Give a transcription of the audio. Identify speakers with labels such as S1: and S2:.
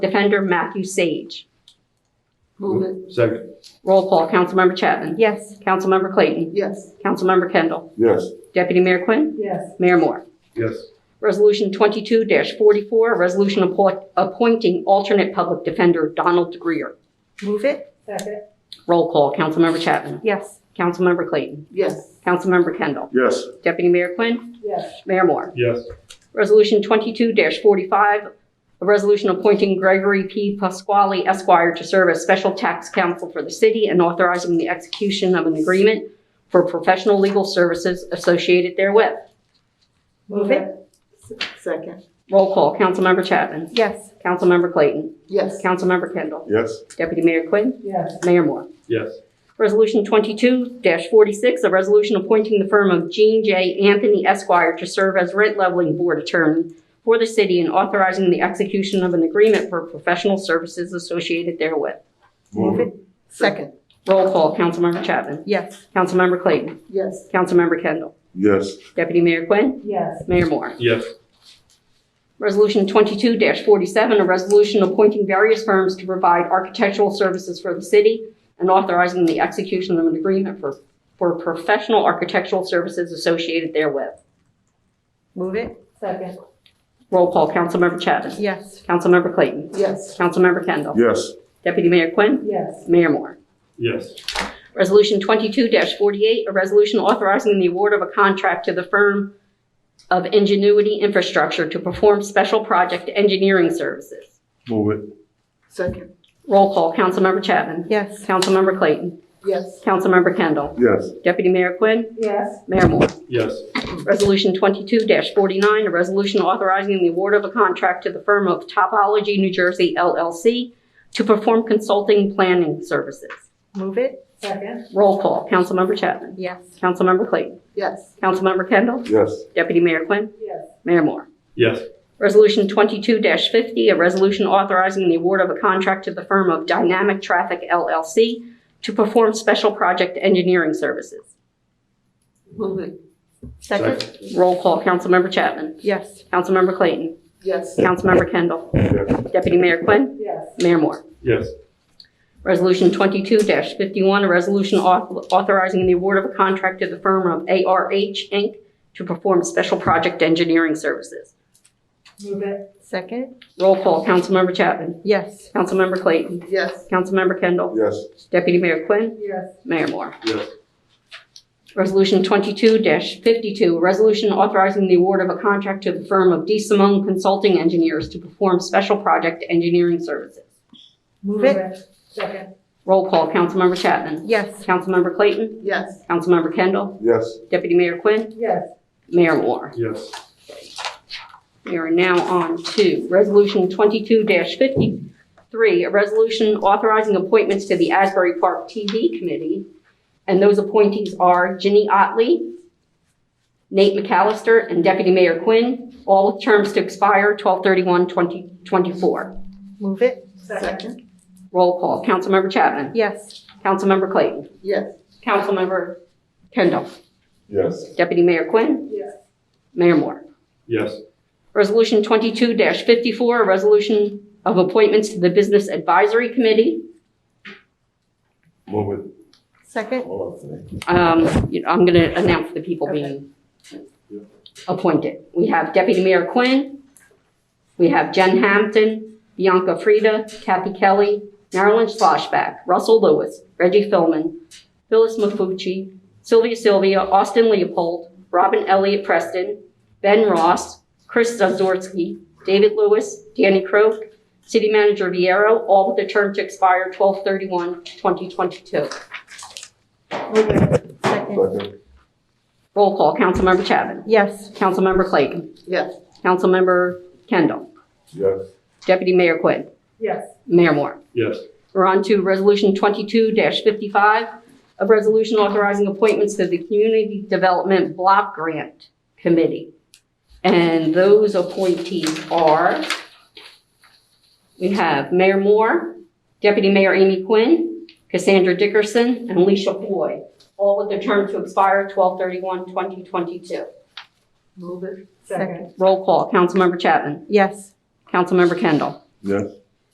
S1: Defender Matthew Sage.
S2: Move it.
S3: Second.
S1: Roll call, Councilmember Chapman.
S2: Yes.
S1: Councilmember Clayton.
S2: Yes.
S1: Councilmember Kendall.
S3: Yes.
S1: Deputy Mayor Quinn.
S2: Yes.
S1: Mayor Moore.
S3: Yes.
S1: Resolution 22-44, a resolution appo- appointing alternate public defender Donald Greer.
S2: Move it. Second.
S1: Roll call, Councilmember Chapman.
S2: Yes.
S1: Councilmember Clayton.
S2: Yes.
S1: Councilmember Kendall.
S3: Yes.
S1: Deputy Mayor Quinn.
S2: Yes.
S1: Mayor Moore.
S3: Yes.
S1: Resolution 22-45, a resolution appointing Gregory P. Pasquale Esquire to serve as special tax counsel for the city and authorizing the execution of an agreement for professional legal services associated therewith.
S2: Move it. Second.
S1: Roll call, Councilmember Chapman.
S2: Yes.
S1: Councilmember Clayton.
S2: Yes.
S1: Councilmember Kendall.
S3: Yes.
S1: Deputy Mayor Quinn.
S2: Yes.
S1: Mayor Moore.
S3: Yes.
S1: Resolution 22-46, a resolution appointing the firm of Jean J. Anthony Esquire to serve as rent leveling board attorney for the city and authorizing the execution of an agreement for professional services associated therewith.
S2: Move it. Second.
S1: Roll call, Councilmember Chapman.
S2: Yes.
S1: Councilmember Clayton.
S2: Yes.
S1: Councilmember Kendall.
S3: Yes.
S1: Deputy Mayor Quinn.
S2: Yes.
S1: Mayor Moore.
S3: Yes.
S1: Resolution 22-47, a resolution appointing various firms to provide architectural services for the city and authorizing the execution of an agreement for, for professional architectural services associated therewith.
S2: Move it. Second.
S1: Roll call, Councilmember Chapman.
S2: Yes.
S1: Councilmember Clayton.
S2: Yes.
S1: Councilmember Kendall.
S3: Yes.
S1: Deputy Mayor Quinn.
S2: Yes.
S1: Mayor Moore.
S3: Yes.
S1: Resolution 22-48, a resolution authorizing the award of a contract to the firm of Ingenuity Infrastructure to perform special project engineering services.
S3: Move it.
S2: Second.
S1: Roll call, Councilmember Chapman.
S2: Yes.
S1: Councilmember Clayton.
S2: Yes.
S1: Councilmember Kendall.
S3: Yes.
S1: Deputy Mayor Quinn.
S2: Yes.
S1: Mayor Moore.
S3: Yes.
S1: Resolution 22-49, a resolution authorizing the award of a contract to the firm of Topology New Jersey LLC to perform consulting planning services.
S2: Move it. Second.
S1: Roll call, Councilmember Chapman.
S2: Yes.
S1: Councilmember Clayton.
S2: Yes.
S1: Councilmember Kendall.
S3: Yes.
S1: Deputy Mayor Quinn.
S2: Yes.
S1: Mayor Moore.
S3: Yes.
S1: Resolution 22-50, a resolution authorizing the award of a contract to the firm of Dynamic Traffic LLC to perform special project engineering services.
S2: Move it.
S1: Roll call, Councilmember Chapman.
S2: Yes.
S1: Councilmember Clayton.
S2: Yes.
S1: Councilmember Kendall.
S3: Yes.
S1: Deputy Mayor Quinn.
S2: Yes.
S1: Mayor Moore.
S3: Yes.
S1: Resolution 22-51, a resolution auth- authorizing the award of a contract to the firm of ARH, Inc. to perform special project engineering services.
S2: Move it. Second.
S1: Roll call, Councilmember Chapman.
S2: Yes.
S1: Councilmember Clayton.
S2: Yes.
S1: Councilmember Kendall.
S3: Yes.
S1: Deputy Mayor Quinn.
S2: Yes.
S1: Mayor Moore.
S3: Yes.
S1: Resolution 22-52, a resolution authorizing the award of a contract to the firm of D. Simone Consulting Engineers to perform special project engineering services.
S2: Move it. Second.
S1: Roll call, Councilmember Chapman.
S2: Yes.
S1: Councilmember Clayton.
S2: Yes.
S1: Councilmember Kendall.
S3: Yes.
S1: Deputy Mayor Quinn.
S2: Yes.
S1: Mayor Moore.
S3: Yes.
S1: We are now on to Resolution 22-53, a resolution authorizing appointments to the Asbury Park TV Committee. And those appointees are Ginny Otley, Nate McAllister, and Deputy Mayor Quinn, all with terms to expire 12/31/2024.
S2: Move it. Second.
S1: Roll call, Councilmember Chapman.
S2: Yes.
S1: Councilmember Clayton.
S2: Yes.
S1: Councilmember Kendall.
S3: Yes.
S1: Deputy Mayor Quinn.
S2: Yes.
S1: Mayor Moore.
S3: Yes.
S1: Resolution 22-54, a resolution of appointments to the Business Advisory Committee.
S3: Move it.
S2: Second.
S1: Um, you know, I'm going to announce the people being appointed. We have Deputy Mayor Quinn, we have Jen Hampton, Bianca Frida, Kathy Kelly, Marilyn Schlossback, Russell Lewis, Reggie Philman, Phyllis Mafucci, Sylvia Sylvia, Austin Leopold, Robin Elliott Preston, Ben Ross, Chris Zazorski, David Lewis, Danny Croak, City Manager Viero, all with a term to expire 12/31/2022.
S2: Move it. Second.
S3: Second.
S1: Roll call, Councilmember Chapman.
S2: Yes.
S1: Councilmember Clayton.
S2: Yes.
S1: Councilmember Kendall.
S3: Yes.
S1: Deputy Mayor Quinn.
S2: Yes.
S1: Mayor Moore.
S3: Yes.
S1: We're on to Resolution 22-55, a resolution authorizing appointments to the Community Development Block Grant Committee. And those appointees are, we have Mayor Moore, Deputy Mayor Amy Quinn, Cassandra Dickerson, and Alicia Floyd, all with their term to expire 12/31/2022.
S2: Move it. Second.
S1: Roll call, Councilmember Chapman.
S2: Yes.
S1: Councilmember Kendall.
S3: Yes.